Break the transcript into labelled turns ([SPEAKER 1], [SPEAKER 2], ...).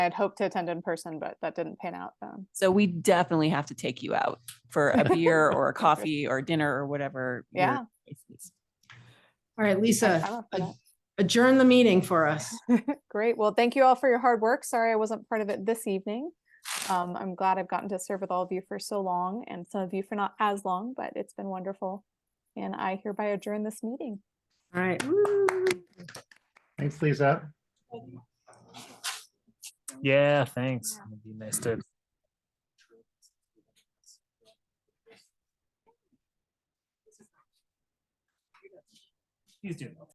[SPEAKER 1] I had hoped to attend in person, but that didn't pan out. Um,
[SPEAKER 2] So we definitely have to take you out for a beer or a coffee or dinner or whatever. your
[SPEAKER 1] Yeah.
[SPEAKER 2] choice is.
[SPEAKER 3] All right,
[SPEAKER 1] I- I'm
[SPEAKER 3] Lisa,
[SPEAKER 1] up for that.
[SPEAKER 3] adjourn the meeting for us.
[SPEAKER 1] Great. Well, thank you all for your hard work. Sorry I wasn't part of it this evening. Um, I'm glad I've gotten to serve with all of you for so long and some of you for not as long, but it's been wonderful. And I hereby adjourn this meeting.
[SPEAKER 3] All right.
[SPEAKER 4] Thanks, Lisa.
[SPEAKER 5] Yeah, thanks. It'd be nice to He's doing.